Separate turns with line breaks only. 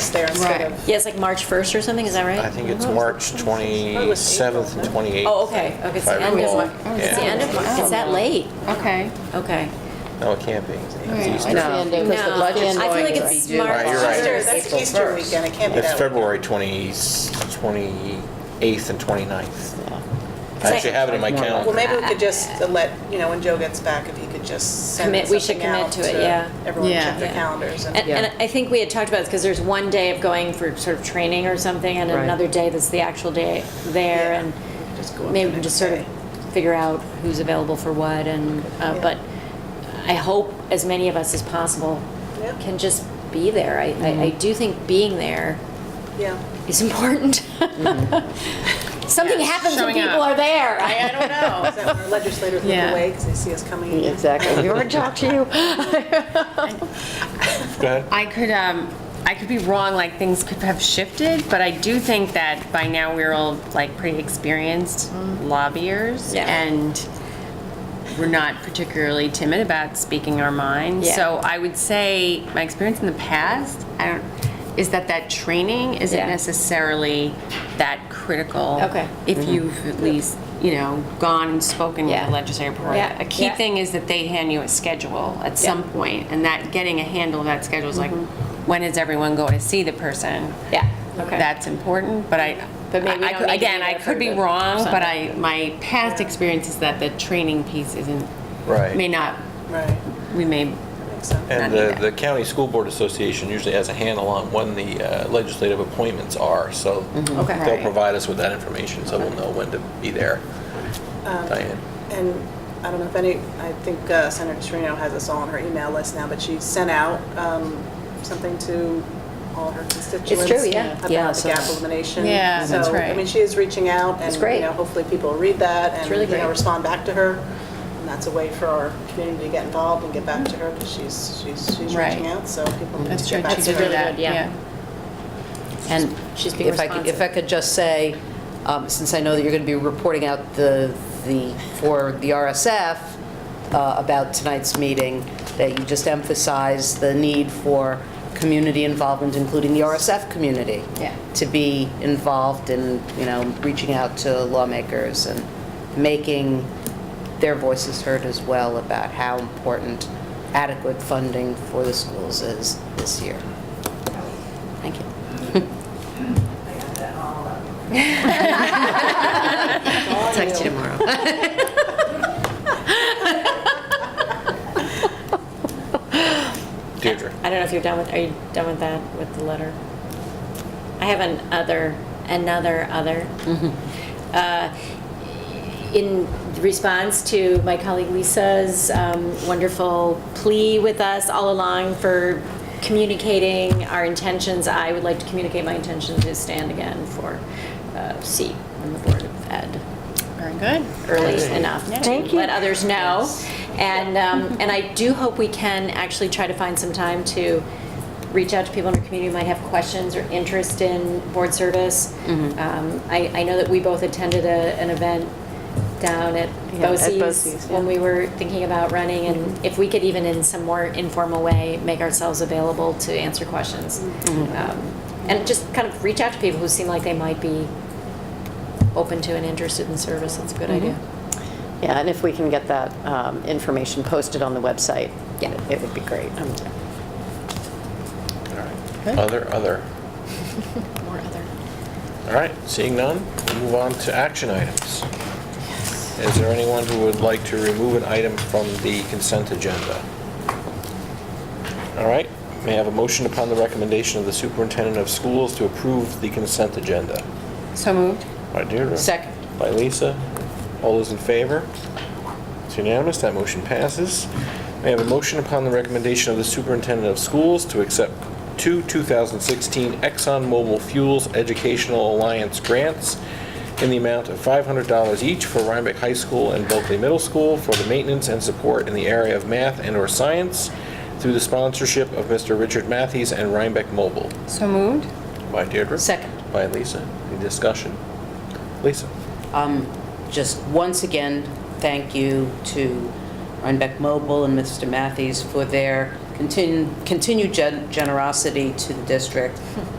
Right.
instead of.
Yeah, it's like March 1st or something, is that right?
I think it's March 27th and 28th.
Oh, okay, okay, it's
If I
the end of
recall.
March. It's the
Oh, Yeah.
end of March, it's that late,
Okay.
okay.
No, it can't be. It's
Right.
Easter.
No.
No, uh, because the
No,
budget's
I feel
going
like
to be
it's
due.
March.
Right, you're right.
Easter.
That's Easter weekend, it can't be
It's
that. way.
February 20 28th and 29th. I actually have it in my
Well,
calendar.
maybe we could just let, you know, when Joe gets back, if he could just send
Commit- we should
something
commit
out
to it, yeah.
Everyone
Yeah.
check their
Yeah.
calendars and.
And,
Yeah.
and I think we had talked about this, because there's one day of going for sort of training or something, and
Right.
another day that's the actual day there,
Yeah.
and
Just go up
maybe
the
we can
next
just sort
day.
of figure out who's available for what, and, uh,
Yeah.
but I hope as many of us as possible
Yeah.
can just be there. I, I I do think being there
Yeah.
is important. Something happens when
Showing up.
people are there.
I don't know.
Is that when our legislators look
Yeah.
away because they see us coming? in?
Exactly. We already talked to you.
Go ahead.
I could, um, I could be wrong, like, things could have shifted, but I do think that by now we're all, like, pretty experienced lobbyers,
Mm-hmm. Yeah.
and we're not particularly timid about speaking our mind.
Yeah.
So I would say, my experience in the past, I don't, is that that training isn't
Yeah.
necessarily that critical.
Okay.
Mm-hmm.
If you've at least, you know, gone and spoken with
Yeah.
the legislative board.
Yeah.
A key
Yeah.
thing is that they hand you a schedule at some point, and that, getting a handle of that schedule is like, when does everyone go to see the person?
Yeah, Mm-hmm. okay.
That's important, but I,
But maybe we
I- I
don't
could-
need to
again,
be
I
there
could
for
be
the
wrong, but
Sunday.
I, my past experience is that the training piece isn't,
Right.
may not,
Right.
we may,
Makes sense.
And
Not
the,
needed.
the county school board association usually has a handle on when the uh, legislative appointments are, so
Okay.
they'll provide us with that information, so we'll know when to be there. Diane,
And I don't know if any, I think uh, Senator Serino has us all on her email list now, but she sent out um, something to all her constituents.
yeah. Yeah,
About the
so-
gap elimination.
Yeah, that's
So, I
right.
mean, she is reaching out and,
That's great.
you know, hopefully people will read that and,
really
you know,
great.
respond back to her. And that's a way for our community to get involved and get back to her because she's, she's, she's
Right.
reaching out, so people need
that's
to
true,
get back to
she did
her.
really
that,
good, yeah.
yeah.
And
She's being
if I could- If I
responsive.
could just say, um, since I know that you're going to be reporting out the, the, for the RSF uh, about tonight's meeting, that you just emphasize the need for community involvement, including the RSF community.
Yeah.
To be involved in, you know, reaching out to lawmakers and making their voices heard as well about how important adequate funding for the schools is this year. Thank you. I'll text you tomorrow.
Deirdre.
I don't know if you're done with, are you done with that, with the letter? I have an other, another other.
Mm-hmm.
Uh, In response to my colleague Lisa's um, wonderful plea with us all along for communicating our intentions, I would like to communicate my intention to stand again for uh, seat on the Board of Ed
Very good.
early enough to let others know. And, um, and I do hope we can actually try to find some time to reach out to people in our community who might have questions or interest in board service. Um, I, I know that we both attended a, an event down at
Yeah, Mm-hmm. at
BOCES
BOCES,
when we were thinking about running, and if we could even in some more informal way, make ourselves available to answer questions.
Mm-hmm.
Um, And just kind of reach out to people who seem like they might be open to and interested in service, that's a good
Mm-hmm.
idea.
Yeah, and if we can get that um, information posted on the website,
Yeah.
it would be great. Um,
All right. Other, other.
More other.
All right, seeing none, we move on to action items. Is there anyone who would like to remove an item from the consent agenda? All right, may I have a motion upon the recommendation of the superintendent of schools to approve the consent agenda?
So moved?
By Deirdre.
Second.
By Lisa. All those in favor? It's unanimous, that motion passes. May I have a motion upon the recommendation of the superintendent of schools to accept two 2016 ExxonMobil Fuels Educational Alliance grants in the amount of $500 each for Rhinebeck High School and Bulkley Middle School for the maintenance and support in the area of math and/or science through the sponsorship of Mr. Richard Matthews and Rhinebeck Mobile.
So moved?
By Deirdre.
Second.
By Lisa. Any discussion? Lisa?
Um, Just once again, thank you to Rhinebeck Mobile and Mr. Matthews for their continu- continued gen- generosity to the district